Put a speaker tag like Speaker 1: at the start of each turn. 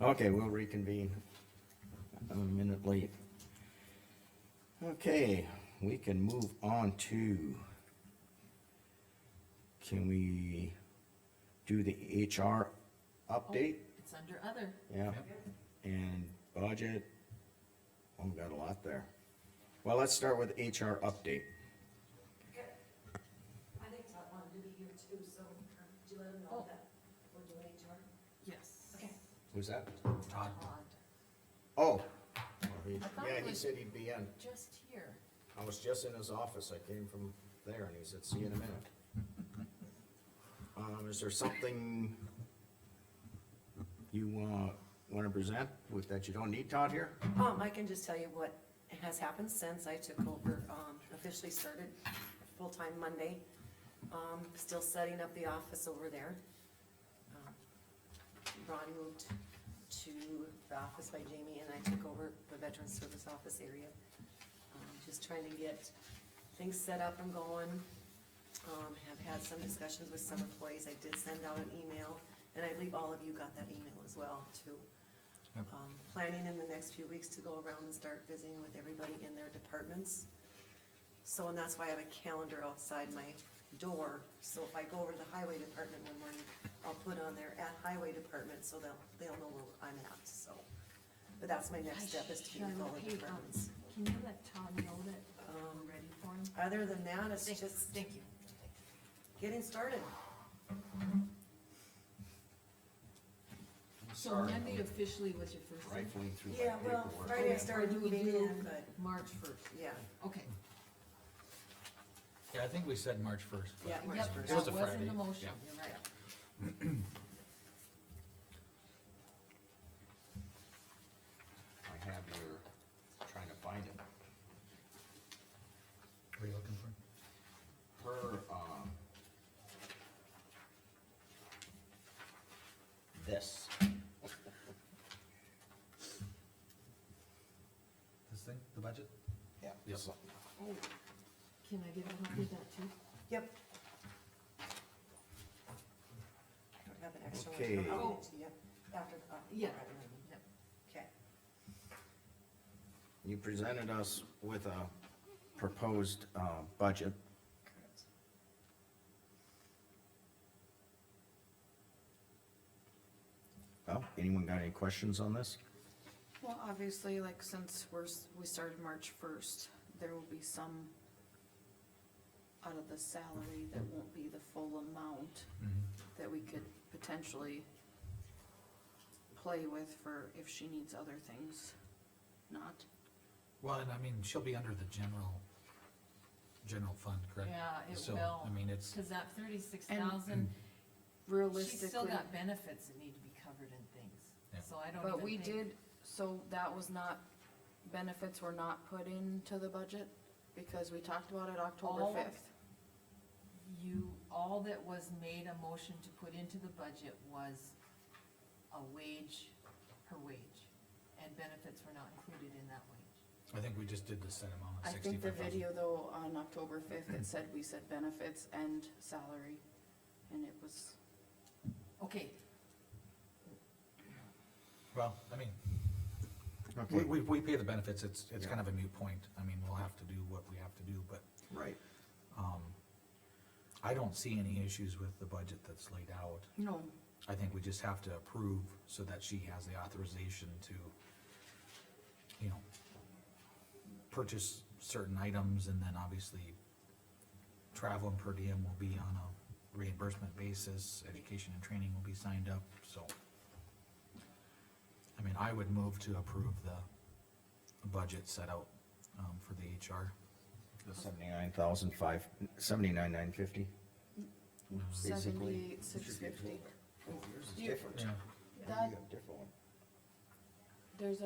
Speaker 1: Okay, we'll reconvene. I'm a minute late. Okay, we can move on to. Can we do the HR update?
Speaker 2: It's under other.
Speaker 1: Yeah, and budget. Oh, we got a lot there. Well, let's start with HR update.
Speaker 3: I think Todd wanted to be here too, so um, do you let him know that we're doing HR?
Speaker 2: Yes.
Speaker 3: Okay.
Speaker 1: Who's that?
Speaker 2: Todd.
Speaker 1: Oh. he-
Speaker 2: I thought
Speaker 1: Yeah,
Speaker 2: it
Speaker 1: he
Speaker 2: was-
Speaker 1: said he'd be in.
Speaker 2: Just here.
Speaker 1: I was just in his office, I came from there, and he said, see you in a minute. Um, is there something you, uh, wanna present with, that you don't need Todd here?
Speaker 3: Um, I can just tell you what has happened since I took over, um, officially started full-time Monday. Um, still setting up the office over there. Um, Ron moved to the office by Jamie and I took over the veteran service office area. Um, Just trying to get things set up and going. Um, have had some discussions with some employees. I did send out an email and I believe all of you got that email as well too um, planning in the next few weeks to go around and start visiting with everybody in their departments. So, and that's why I have a calendar outside my door, so if I go over to the highway department one morning, I'll put on there at highway department, so they'll, they'll know where I'm at, so. But that's my next step, is to be with all the departments. Um,
Speaker 4: Can you let Tom know that I'm ready for him?
Speaker 3: Other than that, it's
Speaker 2: Thank-
Speaker 3: just
Speaker 2: Thank you.
Speaker 3: getting started.
Speaker 4: So Monday officially was your first day?
Speaker 1: Rifling through my
Speaker 3: Yeah, well,
Speaker 1: paperwork.
Speaker 3: Friday I started
Speaker 4: Or do we
Speaker 3: moving
Speaker 4: do
Speaker 3: in, but,
Speaker 4: March first,
Speaker 3: yeah,
Speaker 4: okay.
Speaker 5: Yeah, I think we said March first.
Speaker 3: yeah, March
Speaker 4: Yep,
Speaker 3: first.
Speaker 5: It was a
Speaker 4: That was in
Speaker 5: Friday,
Speaker 4: the motion,
Speaker 5: yeah.
Speaker 4: you're right.
Speaker 1: I have your, trying to find it.
Speaker 5: What are you looking for?
Speaker 1: Her, um. This,
Speaker 5: This thing, the budget?
Speaker 1: yeah. this one.
Speaker 4: Oh, can I get a copy of that too?
Speaker 3: Yep. I don't have an extra one.
Speaker 1: Okay.
Speaker 3: I'll get it to you after, uh,
Speaker 4: Yeah. Yep.
Speaker 3: Okay.
Speaker 1: You presented us with a proposed, uh, budget. Well, anyone got any questions on this?
Speaker 6: Well, obviously, like, since we're, s- we started March first, there will be some out of the salary that won't be the full amount that we could potentially play with for if she needs other things, not.
Speaker 5: Well, and I mean, she'll be under the general, general fund, correct?
Speaker 4: Yeah, it
Speaker 5: So,
Speaker 4: will.
Speaker 5: I mean, it's,
Speaker 4: Cause that thirty-six thousand, she's
Speaker 6: Realistically.
Speaker 4: still got benefits that need to be covered and
Speaker 5: Yeah.
Speaker 4: things, so I don't even think.
Speaker 6: But we did, so that was not, benefits were not put into the budget because we talked about it October
Speaker 4: All-
Speaker 6: fifth.
Speaker 4: You, all that was made a motion to put into the budget was a wage, her wage, and benefits were not included in that wage.
Speaker 5: I think we just did the set amount
Speaker 6: I
Speaker 5: of
Speaker 6: think the
Speaker 5: sixty-five thousand.
Speaker 6: video though, on October fifth, it said, we said benefits and salary, and it was,
Speaker 4: Okay,
Speaker 5: Well, I mean, we,
Speaker 1: Okay,
Speaker 5: we, we pay the benefits, it's, it's
Speaker 1: Yeah.
Speaker 5: kind of a moot point. I mean, we'll have to do what we have to do, but,
Speaker 1: right.
Speaker 5: um, I don't see any issues with the budget that's laid out.
Speaker 6: no,
Speaker 5: I think we just have to approve so that she has the authorization to, you know, purchase certain items and then obviously travel and per diem will be on a reimbursement basis, education and training will be signed up, so. I mean, I would move to approve the budget set out, um, for the HR.
Speaker 1: The seventy-nine thousand five, seventy-nine nine fifty.
Speaker 6: seventy-eight, six fifty.
Speaker 1: Oh, yours is different.
Speaker 5: Yeah.
Speaker 1: You
Speaker 6: That,
Speaker 1: got a different one.
Speaker 6: there's